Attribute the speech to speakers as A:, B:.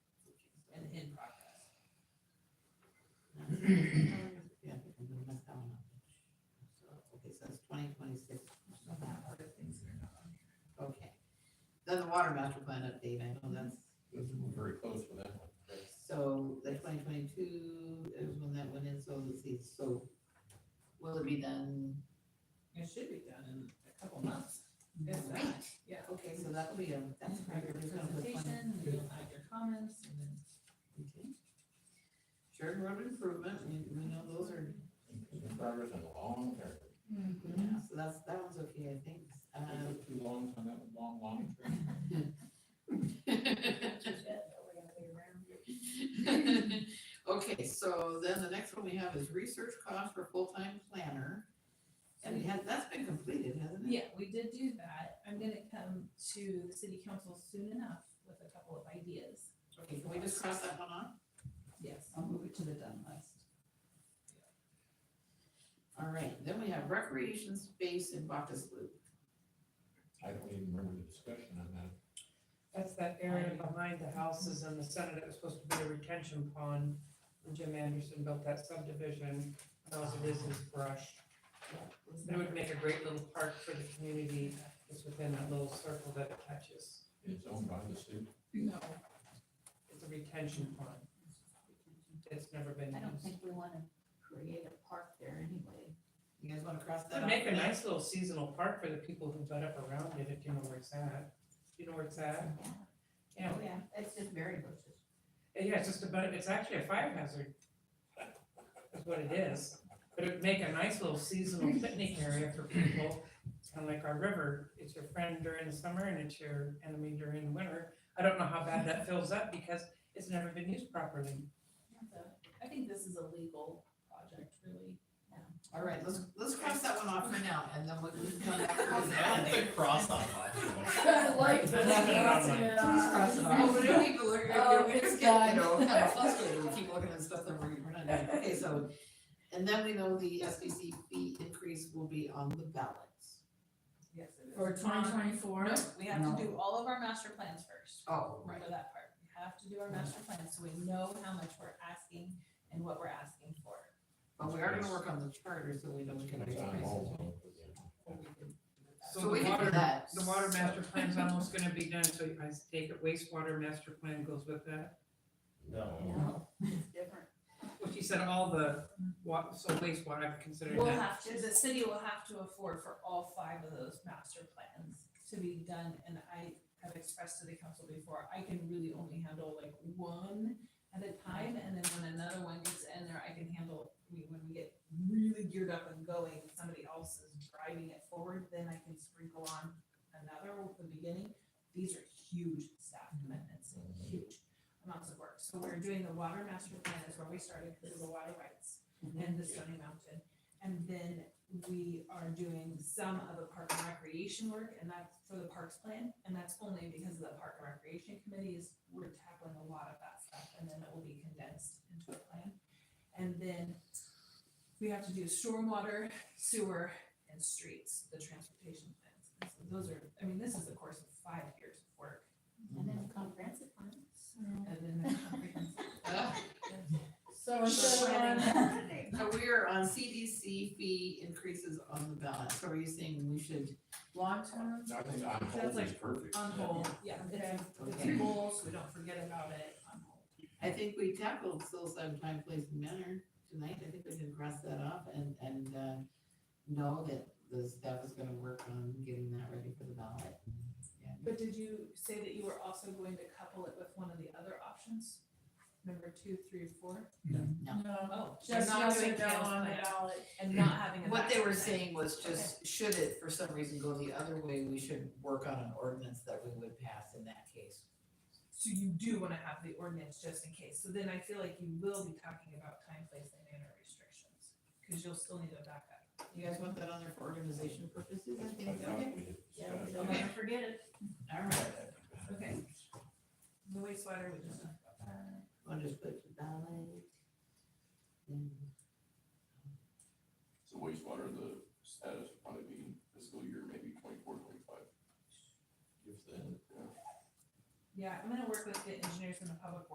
A: Yeah, because we messed that one up. So, Okay, so it's twenty twenty-six. Okay. Then the water master plan update, I know that's,
B: This is very close for that one.
A: so the twenty twenty-two is when that went in, so let's see, so will it be done?
C: It should be done in a couple months. It's that, yeah.
A: Okay, so that'll be a, that's
C: That's
A: probably
C: your
A: gonna put one.
C: presentation, and you'll have your comments, and then
A: Okay. Shared road improvement, we, we know those are,
B: In progress and a long term.
D: Mm-hmm.
A: yeah, so that's, that one's okay, I think.
C: Uh,
A: Um,
B: It took too long, so that was long, long.
A: Okay, so then the next one we have is research cost for full-time planner. And we had, that's been completed, hasn't it?
C: Yeah, we did do that. I'm gonna come to the city council soon enough with a couple of ideas.
A: Okay, can we just cross that one off?
C: Yes.
D: I'll move it to the done list.
A: All right, then we have recreation space in Bacchus Loop.
B: I don't even remember the discussion on that.
E: That's that
D: Um,
E: area behind the houses in the center that was supposed to be a retention pond. when Jim Anderson built that subdivision, now it is his brush. It would make a great little park for the community, just within that little circle that it touches.
B: It's owned by the city.
C: No,
E: It's a retention pond. It's never been
D: I don't
E: used.
D: think we wanna create a park there anyway.
A: You guys wanna cross that
E: It'd
A: off?
E: make a nice little seasonal park for the people who butt up around it, if you know where it's at. You know where it's at? Yeah,
D: Oh, yeah, it's just berry bushes.
E: And Eh, Yeah, it's just about, it's actually a fire hazard. Is what it is, but it'd make a nice little seasonal picnic area for people, It's kind of like our river, it's your friend during the summer and it's your enemy during the winter. I don't know how bad that fills up because it's never been used properly.
C: that's a- I think this is a legal project, really.
A: All right, let's, let's cross that one off for now, and then we'll just come back to
F: That's
A: that.
F: a cross off option.
D: I like
A: Cross it off. we don't need to look,
D: Oh,
A: we just
D: it's
A: get, you know,
D: done.
A: kind of frustrated, we keep looking at stuff that we're, we're not doing, okay, so. And then we know the SBC fee increase will be on the ballot.
C: Yes, it is.
D: For twenty twenty-four?
C: No, we have
D: No.
C: to do all of our master plans first.
A: Oh,
C: Remember that part. We have to do our master plans so we know how much we're asking and what we're asking for.
A: But we are gonna work on the charter, so we know we can raise
B: It's on
A: prices.
B: hold, so-
A: So we
E: the
A: can do
E: water,
A: that.
E: the water master plan's almost gonna be done, so I take it wastewater master plan goes with that.
B: No.
D: No, it's different.
E: Well, she said all the wa, so wastewater, I've considered
C: We'll
E: that.
C: have to, the city will have to afford for all five of those master plans to be done, and I have expressed to the council before, I can really only handle like one at a time, and then when another one gets in there, I can handle, I mean, when we get really geared up and going, and somebody else is driving it forward, then I can sprinkle on another at the beginning. These are huge staff commitments, and huge amounts of work, so we're doing the water master plan is where we started, because of the water rights and
E: Mm-hmm.
C: the Stony Mountain. And then we are doing some of the park and recreation work, and that's for the parks plan, and that's only because of the park and recreation committee is, we're tackling a lot of that stuff, and then it will be condensed into a plan. And then we have to do stormwater, sewer, and streets, the transportation plans, and so those are, I mean, this is a course of five years of work,
D: And then the comprehensive plan.
C: and then the comprehensive.
A: Uh,
D: So
A: instead of
D: planning.
A: So we are on CDC fee increases on the ballot, so are you saying we should long term?
B: I think on
C: Sounds
B: hold is perfect.
C: On hold, yeah, it's, it's a
A: Okay.
C: goal, so we don't forget about it, on hold.
A: I think we tackled psilocybin time, place, and manner tonight, I think we can cross that off and, and, uh, know that the staff is gonna work on getting that ready for the ballot.
C: But did you say that you were also going to couple it with one of the other options? Number two, three, or four?
D: No,
C: Oh.
D: just
C: not
D: not
C: doing
D: it down
C: cancel
D: on the
C: it
D: ballot.
C: And not having a.
A: What they were
C: master plan.
A: saying was just, should it for some reason go the other way, we should work on an ordinance that we would pass in that case.
C: So you do wanna have the ordinance just in case, so then I feel like you will be talking about time, place, and manner restrictions, cause you'll still need a backup.
A: You guys want that on there for organization purposes, I
B: I
A: think,
B: thought
A: okay,
B: we had
D: Yeah, we
B: discussed
D: don't
B: that.
D: wanna forget it.
A: all right.
C: Okay. The wastewater, we just.
A: I'll just put the ballot. and-
G: So wastewater, the status would probably be fiscal year, maybe twenty-four, twenty-five.
B: If then.
C: Yeah, I'm gonna work with the engineers from the public